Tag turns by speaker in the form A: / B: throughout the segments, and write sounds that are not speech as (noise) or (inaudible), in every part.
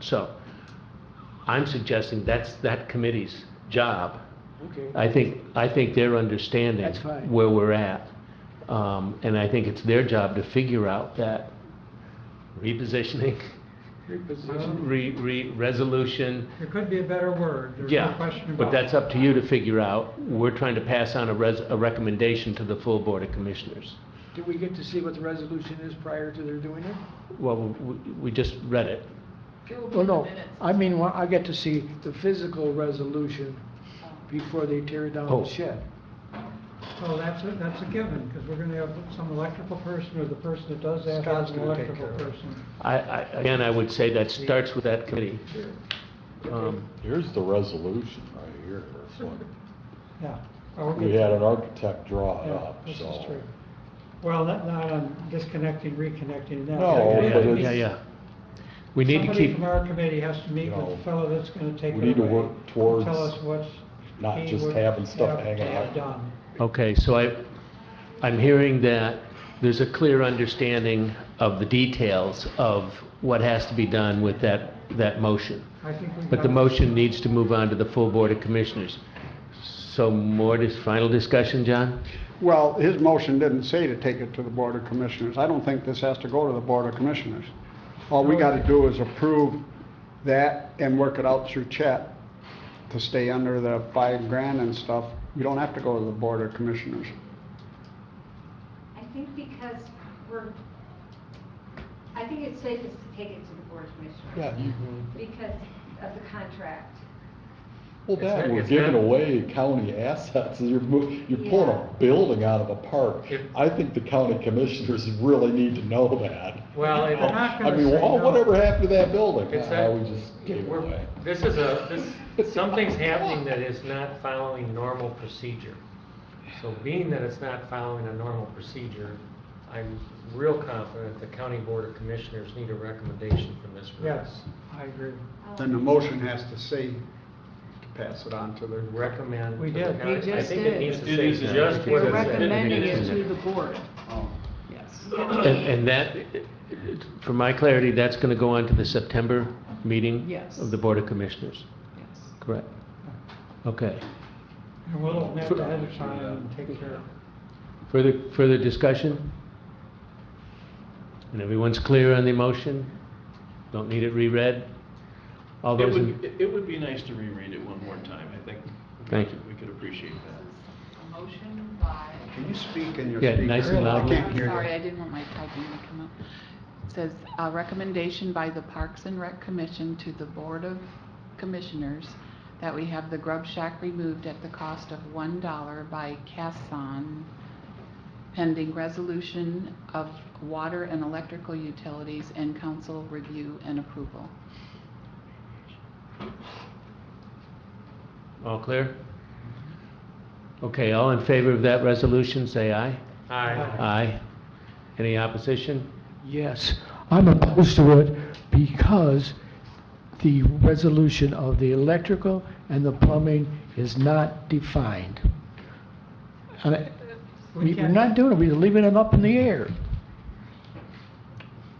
A: So I'm suggesting that's that committee's job.
B: Okay,
A: I think, I think they're understanding
B: That's fine.
A: where we're at. Um, And I think it's their job to figure out that repositioning, (laughs)
B: reposition.
A: re, re, resolution.
C: There could be a better word, there's no
A: Yeah,
C: question about it.
A: but that's up to you to figure out. We're trying to pass on a res, a recommendation to the full Board of Commissioners.
B: Do we get to see what the resolution is prior to their doing it?
A: Well, we, we just read it.
D: It will be
B: Well,
D: in the
B: no,
D: minutes.
B: I mean, well, I get to see the physical resolution before they tear down
A: Oh.
B: the shed.
C: Well, that's a, that's a given, because we're gonna have some electrical person, or the person that does that
B: Scott's
C: has an
B: gonna take
C: electrical
B: care of it.
C: person.
A: I, I, again, I would say that starts with that committee. Um,
E: Here's the resolution right here. It's like,
C: Yeah. I'll
E: We
C: get-
E: had an architect draw it
C: Yeah,
E: up,
C: this is
E: so.
C: true. Well, not, not on disconnecting, reconnecting, that.
E: No,
C: that-
E: but
A: Yeah,
E: it's-
A: yeah, yeah. We need to
C: Oh, Somebody
A: keep,
C: from our committee has to meet with
E: No.
C: the fellow that's gonna take it away.
E: We need to work
C: and
E: towards
C: Tell us what's.
E: not
C: he
E: just
C: would
E: having stuff
C: have to
E: hanging
C: have
E: out.
C: Done.
A: okay, so I, I'm hearing that there's a clear understanding of the details of what has to be done with that, that motion.
C: I think we.
A: But the motion needs to move on to the full Board of Commissioners. So more, dis final discussion, John?
F: Well, his motion didn't say to take it to the Board of Commissioners. I don't think this has to go to the Board of Commissioners. All we got to do is approve that and work it out through Chet to stay under the five grand and stuff. We don't have to go to the Board of Commissioners.
G: I think because we're, I think it's safest to take it to the board of commissioners. Because of the contract.
E: Well,
H: It's
E: that,
H: not-
E: we're
H: it's
E: giving
H: not-
E: away county assets. You're, mo- you're pulling
G: Yeah.
E: a building out of a park.
H: If-
E: I think the county commissioners really need to know that.
H: Well,
C: They're
H: it-
C: not
E: I
C: gonna
E: mean,
C: say
E: well,
C: no.
E: whatever happened to that building?
H: it's
E: Ah,
H: that,
E: we just gave it
H: we're-
E: away.
H: this is a, this, something's happening that is not following normal procedure. So being that it's not following a normal procedure, I'm real confident the county board of commissioners need a recommendation from this group.
C: Yes, I agree.
G: um,
F: Then the motion has to say to pass it on to the.
H: Recommend.
C: We
H: to the
C: did.
H: county-
I: We
H: I
I: just
H: think
I: did.
H: it needs to
A: It
H: say
A: is in
H: just
A: there.
H: what
I: We're
H: it said.
I: recommending it
A: It's in
I: to
A: there.
I: the board,
F: oh,
I: yes.
A: And, and that, for my clarity, that's going to go on to the September meeting?
I: Yes.
A: Of the Board of Commissioners,
I: yes.
A: correct? Okay.
C: And we'll admit ahead of time and take care of it.
A: Further, further discussion? And everyone's clear on the motion? Don't need it reread? All
J: It
A: those
J: would,
A: in,
J: it- it would be nice to reread it one more time, I think. we
A: Thank
J: could-
A: you.
J: We could appreciate that.
D: A motion by,
F: Can you speak in your
A: Yeah,
F: speaker?
A: nice and
F: I
A: loud.
F: can't
I: I'm
F: hear you.
I: sorry, I didn't want my typing to come up. It Says, "A recommendation by the Parks and Rec Commission to the Board of Commissioners that we have the grub shack removed at the cost of one dollar by Casson pending resolution of water and electrical utilities and council review and approval."
A: all clear? Okay, all in favor of that resolution, say aye.
H: Aye.
A: Aye. Any opposition?
B: Yes, I'm opposed to it because the resolution of the electrical and the plumbing is not defined. And I- we- We're
C: can't-
B: not doing it, we're leaving it up in the air.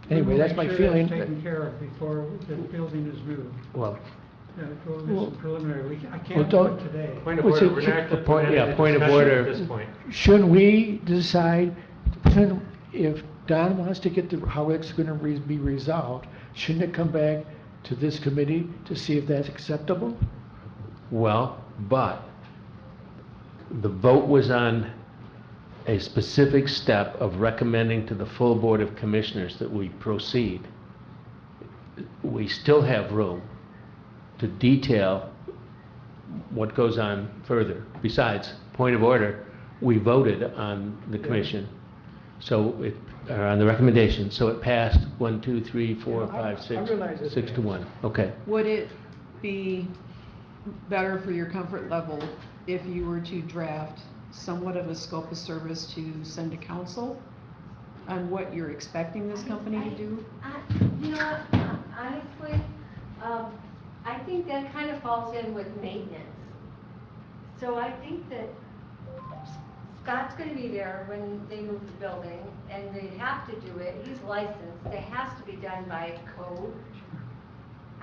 C: We will
B: Anyway, that's
C: make
B: my
C: sure
B: feeling.
C: Taken care of before the building is moved.
A: Well,
C: Yeah, go do
B: Well-
C: some preliminary, we, I
B: Well,
C: can't do
B: don't-
C: it today.
H: Point of
B: Well,
H: order,
B: so-
H: we're
B: so-
H: not, we're
A: point-
H: not
A: yeah,
H: in a
A: point of
H: discussion
A: order.
H: at this point.
B: Shouldn't we decide, shouldn't- if Don wants to get the, how it's gonna re- be resolved, shouldn't it come back to this committee to see if that's acceptable?
A: well, but the vote was on a specific step of recommending to the full Board of Commissioners that we proceed. We still have room to detail what goes on further. Besides, point of order, we voted on the commission, so it, or on the recommendation, so it passed one, two, three, four,
C: Yeah, I-
A: five,
C: I
A: six,
C: realize it's
A: six to
C: bad.
A: one. Okay.
I: Would it be better for your comfort level if you were to draft somewhat of a scope of service to send to council on what you're expecting this company to do?
G: I- You know what, hon- honestly, um, I think that kind of falls in with maintenance. So I think that Scott's gonna be there when they move the building, and they have to do it, he's licensed, it has to be done by code.